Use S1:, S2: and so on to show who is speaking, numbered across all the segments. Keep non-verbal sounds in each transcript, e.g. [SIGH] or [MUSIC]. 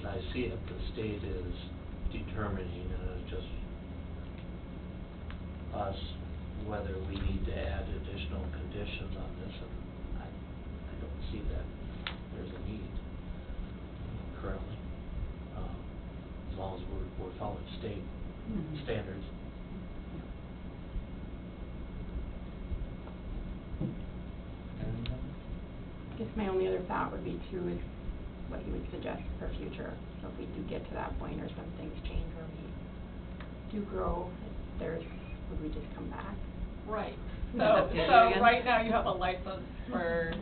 S1: I see it, the state is determining, and it's just us, whether we need to add additional conditions on this, and I, I don't see that there's a need currently. Um, As long as we're, we're following state
S2: Mhm.
S1: standards.
S2: I guess my only other thought would be too is what you would suggest for future. So if we do get to that point or some things change or we do grow, if there's, would we just come back?
S3: [LAUGHS]
S4: Right,
S3: Yeah,
S4: so,
S3: do it
S4: so
S3: again.
S4: right now you have a license for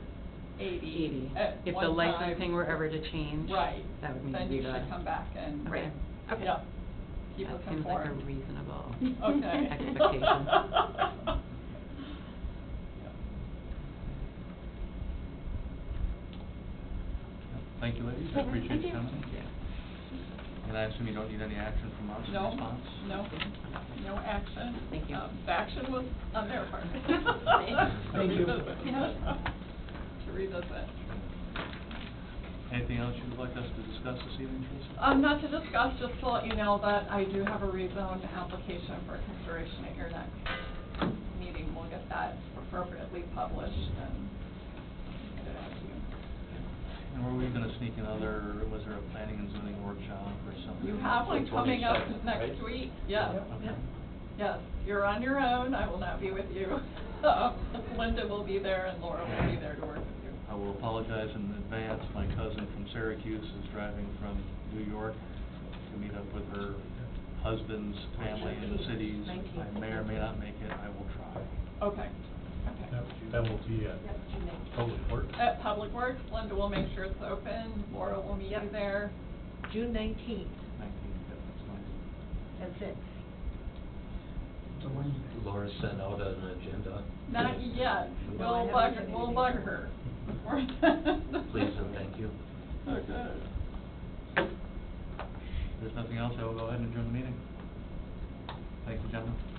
S4: eighty
S3: Eighty.
S4: at
S3: If
S4: one
S3: the
S4: time.
S3: licensing were ever to change.
S4: Right.
S3: That would need to
S4: Then
S3: be
S4: you should
S3: done.
S4: come back and,
S3: Okay.
S2: Right. Okay.
S4: yeah, keep us
S3: That seems like a [LAUGHS]
S4: informed.
S3: reasonable.
S4: [LAUGHS] Okay.
S3: expectation.
S5: Thank you, ladies, I
S2: Yeah,
S5: appreciate
S2: thank
S5: you
S2: you.
S5: coming. And I assume you don't need any action from us in
S4: [LAUGHS] No,
S5: response?
S4: no, no action.
S3: Thank you.
S4: Um, The action was on their
S3: [LAUGHS]
S4: part.
S5: Thank you.
S4: To revisit. [LAUGHS] To revisit.
S5: Anything else you'd like us to discuss this evening, Teresa?
S4: Um, not to discuss, just to let you know that I do have a rezone application for consideration at your next meeting. We'll get that appropriately published and get it out to you.
S5: And were we gonna sneak another, was there a planning and zoning workshop or something?
S4: You have one coming up
S1: 22nd,
S4: next
S1: right?
S4: week, yes,
S5: Okay.
S4: yes. You're on your own, I will not be with you. [LAUGHS] Linda will be there and Laura will be there to work with you.
S5: I will apologize in advance, my cousin from Syracuse is driving from New York to meet up with her husband's family in the cities. I may or may not make it, I will try.
S4: Okay, okay.
S6: That that will be at Public Works.
S4: At Public Works, Linda will make sure it's open, Laura will meet you there.
S7: June nineteenth,
S5: Nineteen, yeah, that's nice.
S7: that's it.
S1: Laura sent out an agenda.
S4: Not yet,
S7: No, I
S4: we'll
S7: haven't
S4: bug,
S7: seen
S4: we'll
S7: anything.
S4: bug her.
S1: [LAUGHS] Please and thank you.
S4: Okay.
S5: If there's nothing else, I will go ahead and adjourn the meeting. Thank you, gentlemen.